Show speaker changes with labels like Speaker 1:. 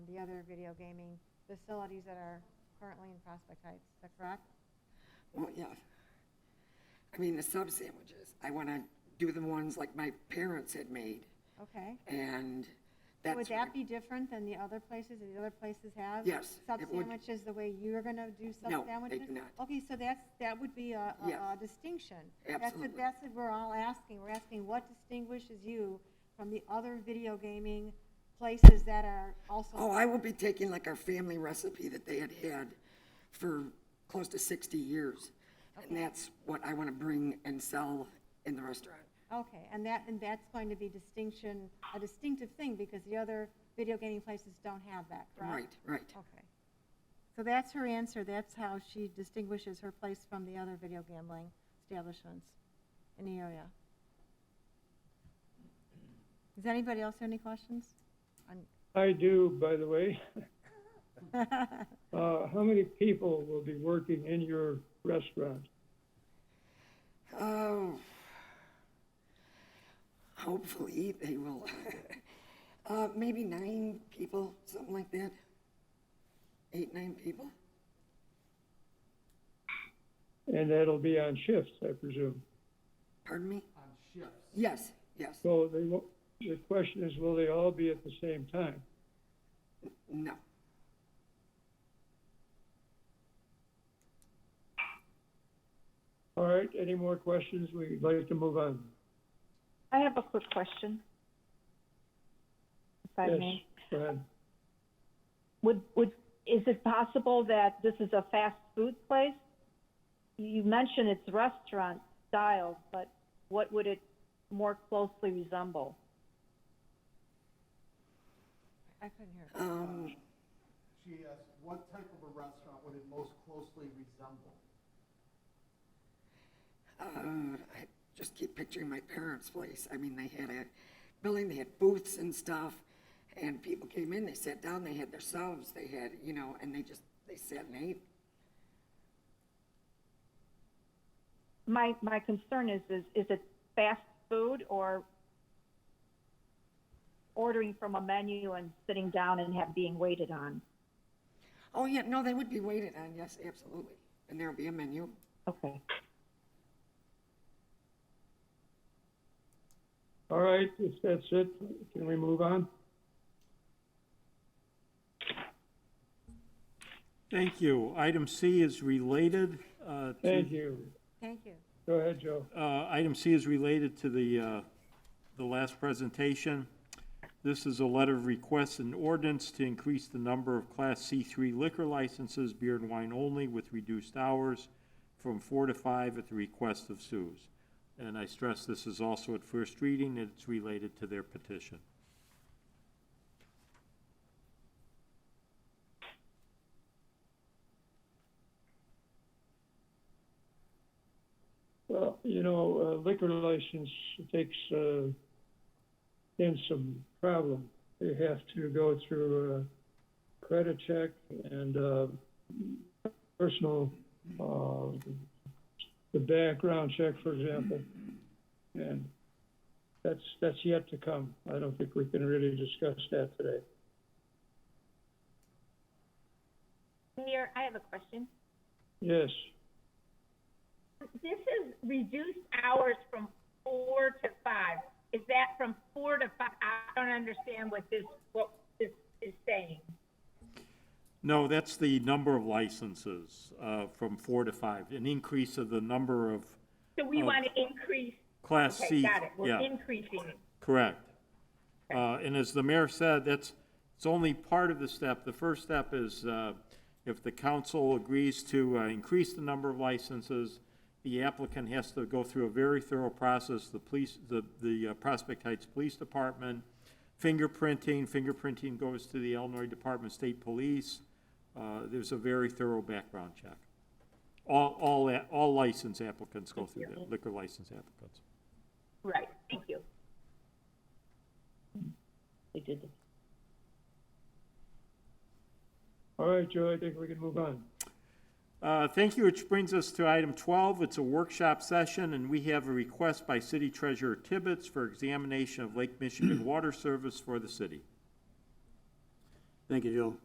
Speaker 1: the other video gaming facilities that are currently in Prospect Heights. Is that correct?
Speaker 2: Well, yeah. I mean, the sub sandwiches, I want to do the ones like my parents had made,
Speaker 1: Okay.
Speaker 2: and that's.
Speaker 1: Would that be different than the other places, that the other places have?
Speaker 2: Yes,
Speaker 1: Sub
Speaker 2: it would.
Speaker 1: sandwiches, the way you're gonna do sub
Speaker 2: No, they
Speaker 1: sandwiches?
Speaker 2: do not.
Speaker 1: Okay, so that's, that would be a, a-
Speaker 2: Yes.
Speaker 1: a distinction. That's what,
Speaker 2: Absolutely.
Speaker 1: that's what we're all asking, we're asking what distinguishes you from the other video gaming places that are
Speaker 2: Oh,
Speaker 1: also,
Speaker 2: I will be taking like our family recipe that they had had for close to sixty years. And that's what I want to bring and sell in the restaurant.
Speaker 1: okay, and that, and that's going to be distinction, a distinctive thing, because the other video gaming places don't have that, correct?
Speaker 2: Right, right.
Speaker 1: Okay. So that's her answer, that's how she distinguishes her place from the other video gambling establishments in the area. Does anybody else have any questions? On-
Speaker 3: I do, by the way. Uh, how many people will be working in your restaurant?
Speaker 2: Oh. Hopefully, they will. Uh, maybe nine people, something like that. Eight, nine people.
Speaker 3: And that'll be on shifts, I presume.
Speaker 2: Pardon me? On shifts. Yes, yes.
Speaker 3: So they will, the question is, will they all be at the same time?
Speaker 2: No.
Speaker 3: All right, any more questions? We'd like to move on.
Speaker 4: I have a quick question. If I
Speaker 3: Yes,
Speaker 4: may,
Speaker 3: go ahead.
Speaker 4: would, would, is it possible that this is a fast food place? You mentioned it's restaurant style, but what would it more closely resemble?
Speaker 1: I couldn't hear.
Speaker 2: Um,
Speaker 5: She asked, what type of a restaurant would it most closely resemble?
Speaker 2: uh, I just keep picturing my parents' place. I mean, they had a building, they had booths and stuff, and people came in, they sat down, they had their selves, they had, you know, and they just, they sat and ate.
Speaker 4: My, my concern is, is, is it fast food or ordering from a menu and sitting down and have, being waited on?
Speaker 2: Oh, yeah, no, they would be waited on, yes, absolutely. And there would be a menu.
Speaker 4: Okay.
Speaker 3: All right, if that's it, can we move on?
Speaker 6: Thank you. Item C is related uh, to,
Speaker 3: Thank you.
Speaker 1: Thank you.
Speaker 3: Go ahead, Joe.
Speaker 6: uh, item C is related to the, uh, the last presentation. This is a letter of request and ordinance to increase the number of Class C3 liquor licenses, beer and wine only, with reduced hours from four to five at the request of Sue's. And I stress this is also at first reading, and it's related to their petition.
Speaker 3: Well, you know, uh, liquor license takes, uh, in some problem. You have to go through a credit check and, uh, personal, uh, the background check, for example. And that's, that's yet to come. I don't think we can really discuss that today.
Speaker 7: Mayor, I have a question.
Speaker 3: Yes,
Speaker 7: This is reduced hours from four to five. Is that from four to five? I don't understand what this, what this is saying.
Speaker 6: No, that's the number of licenses uh, from four to five, an increase of the number of
Speaker 7: So we
Speaker 6: Oh.
Speaker 7: want to increase,
Speaker 6: Class C.
Speaker 7: okay, got it. We're
Speaker 6: yeah.
Speaker 7: increasing it.
Speaker 6: Correct. Uh, And as the mayor said, that's, it's only part of the step. The first step is uh, if the council agrees to uh, increase the number of licenses, the applicant has to go through a very thorough process, the police, the, the uh, Prospect Heights Police Department, fingerprinting, fingerprinting goes to the Illinois Department of State Police. Uh, There's a very thorough background check. All, all, a- all license applicants go through that, liquor license applicants.
Speaker 7: Right, thank you.
Speaker 4: We did this.
Speaker 3: all right, Joe, I think we can move on.
Speaker 6: Uh, Thank you, which brings us to item 12. It's a workshop session, and we have a request by City Treasurer Tibbetts for examination of Lake Michigan water service for the city.
Speaker 8: Thank you, Jill.